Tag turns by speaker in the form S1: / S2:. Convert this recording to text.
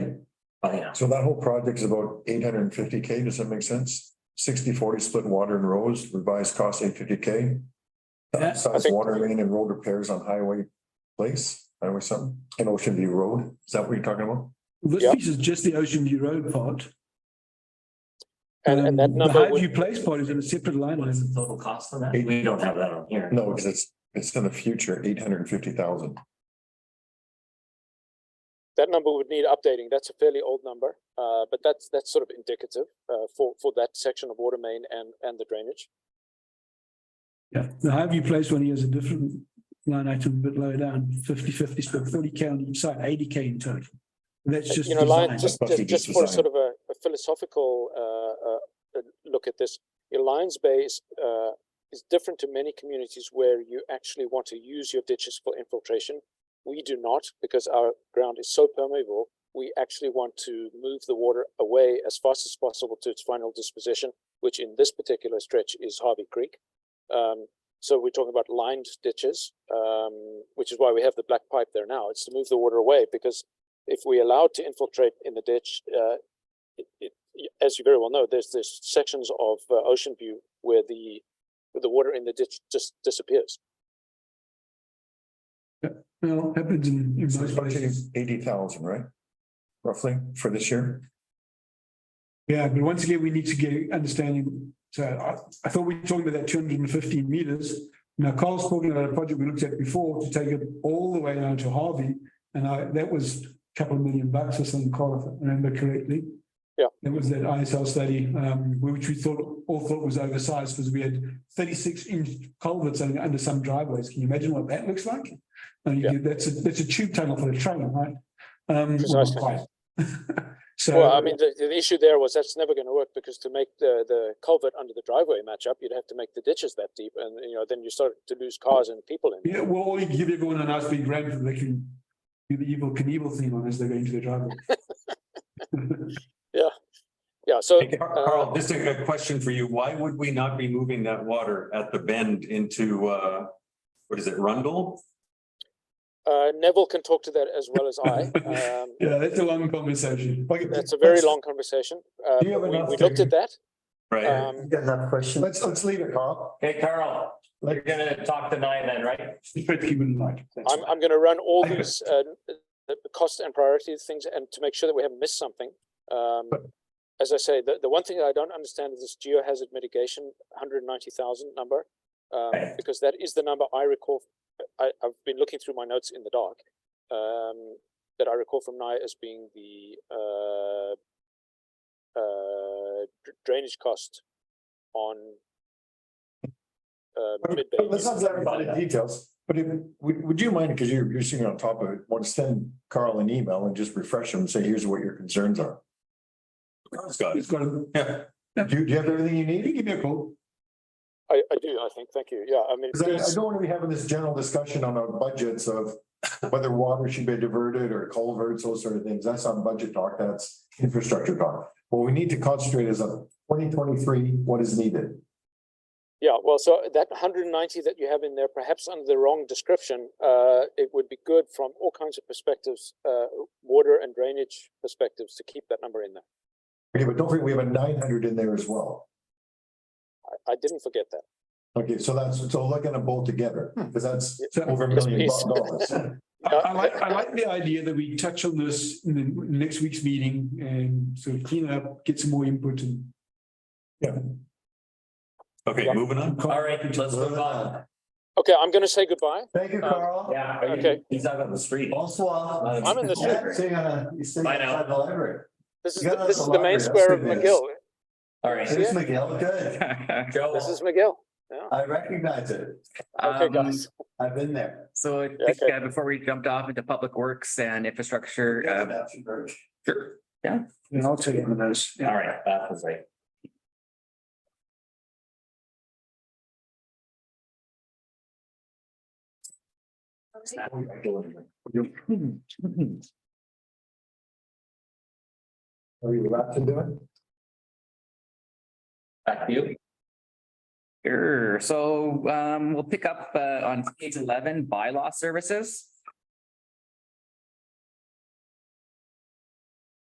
S1: Oh, yeah.
S2: So that whole project is about eight hundred and fifty K. Does that make sense? 60-40 split water and roads, revised cost eight fifty K.
S1: Yeah,
S2: Size water main and road repairs on highway place, highway something, and Ocean View Road. Is that what you're talking about?
S3: Yeah.
S1: This piece is just the Ocean View Road part.
S3: And, and that
S1: Um,
S3: number
S1: The Highview
S3: would,
S1: Place part is in a separate line.
S4: What is the total cost on that? We don't have that on here.
S2: No, because it's, it's in the future, eight hundred and fifty thousand.
S3: that number would need updating. That's a fairly old number. Uh, but that's, that's sort of indicative, uh, for, for that section of water main and, and the drainage.
S1: Yeah, the Highview Place one here is a different line item, a bit lower down, 50 50 split, forty K on each side, eighty K in total. That's just
S3: Uh, You know, Lion,
S1: design.
S3: just,
S2: must be
S3: just,
S2: just
S3: just for
S2: design.
S3: sort of a, a philosophical, uh, uh, uh, look at this. Your Lions Bay is, uh, is different to many communities where you actually want to use your ditches for infiltration. We do not because our ground is so permeable. We actually want to move the water away as fast as possible to its final disposition, which in this particular stretch is Harvey Creek. Um, so we're talking about lined ditches, um, which is why we have the black pipe there now. It's to move the water away because if we allow it to infiltrate in the ditch, uh, it, it, y- as you very well know, there's there's sections of uh, Ocean View where the where the water in the ditch just disappears.
S1: Well, happens in. in most places.
S2: Eighty thousand, right? Roughly for this year.
S1: Yeah, but once again, we need to get understanding. So I, I thought we were talking about that two hundred and fifteen meters. Now Carl's talking about a project we looked at before to take it all the way down to Harvey. And I, that was a couple of million bucks or something, Carl, if I remember correctly.
S3: Yeah.
S1: It was that ISL study, um, which we thought, all thought was oversized because we had thirty-six inch culverts under under some driveways. Can you imagine what that looks like? And
S3: Yeah.
S1: you, that's a, that's a tube tunnel for a trailer, right? Um,
S3: Precisely.
S1: So.
S3: Well, I mean, the, the issue there was that's never going to work because to make the the culvert under the driveway match up, you'd have to make the ditches that deep, and you know then you start to lose cars and people in.
S1: Yeah, well, you give everyone a nice big rant that they can do the evil Knievel theme on as they're going to their driveway.
S3: Yeah, so
S5: Hey, Car- Carl, just a a question for you. Why would we not be moving that water at the bend into, uh, what is it, Rundle?
S3: uh, Neville can talk to that as well as I. Um,
S1: Yeah, that's a long conversation.
S3: that's a very long conversation. Uh,
S2: Do you have
S3: but we,
S2: enough
S3: we looked
S2: to- uh,
S3: at that.
S5: Right?
S3: Um,
S4: got enough questions?
S2: Let's, let's leave it, Carl.
S4: Hey, Carl, you're gonna talk to Nye then, right?
S1: Pretty would like.
S3: I'm, I'm gonna run all these, uh, n- the the cost and priority things and to make sure that we haven't missed something. Um, as I say, the, the one thing I don't understand is this geohazard mitigation, hundred and ninety thousand number. Um,
S4: Right.
S3: because that is the number I recall, I, I've been looking through my notes in the dark. Um, that I recall from now as being the, uh, uh, dr- drainage cost on uh, mid-bay.
S2: Let's not dive into the details, but if, would, would you mind, because you're, you're sitting on top of it, want to send Carl an email and just refresh him and say, here's what your concerns are.
S5: Carl's got it.
S1: It's got a,
S5: Yeah,
S2: Do you, do you have everything you
S1: you
S2: need?
S1: give me a call.
S3: I, I do, I think, thank you, yeah, I mean.
S2: Because I, I
S3: it's-
S2: don't want to be having this general discussion on our budgets of whether water should be diverted or culverts, those sort of things. That's not budget talk, that's infrastructure talk. What we need to concentrate is on twenty twenty-three, what is needed.
S3: Yeah, well, so that hundred and ninety that you have in there, perhaps under the wrong description, uh, it would be good from all kinds of perspectives, uh, water and drainage perspectives to keep that number in there.
S2: Okay, but don't forget, we have a nine hundred in there as well.
S3: I, I didn't forget that.
S2: Okay, so that's, so look at them both together, because that's
S1: So
S2: over a
S3: Yes,
S2: million
S3: please.
S2: dollars.
S1: I, I like, I like the idea that we touch on this in the in the next week's meeting and sort of clean it up, get some more input and.
S5: okay,
S3: Yeah.
S5: moving on.
S4: All right, let's move on.
S3: Uh, Okay, I'm gonna say goodbye.
S2: Thank you,
S3: Um,
S2: Carl.
S4: Yeah. are you-
S3: Okay.
S4: He's out on the street.
S2: Bonsoir.
S3: I'm in the
S2: Yeah,
S3: library.
S2: Sitting on a, he's sitting
S4: Bye now.
S2: outside the library.
S3: This is,
S2: You
S3: the-
S2: got
S3: this
S2: us
S3: is
S2: a
S3: the
S2: library,
S3: main square of
S2: that's good
S3: McGill.
S4: All right.
S2: There's Miguel, good.
S4: Joe,
S3: This is McGill.
S2: I recognize it.
S3: Okay,
S6: Um,
S3: guys.
S2: I've been there.
S6: So I
S3: Yeah,
S6: think,
S3: okay.
S6: uh, before we jumped off into public works and infrastructure, uh, sure.
S1: And I'll take one of those.
S4: all right, that was right.
S2: Are you allowed to do it?
S4: Back to you.
S6: Sure, so um, we'll pick up uh, on page eleven, bylaw services.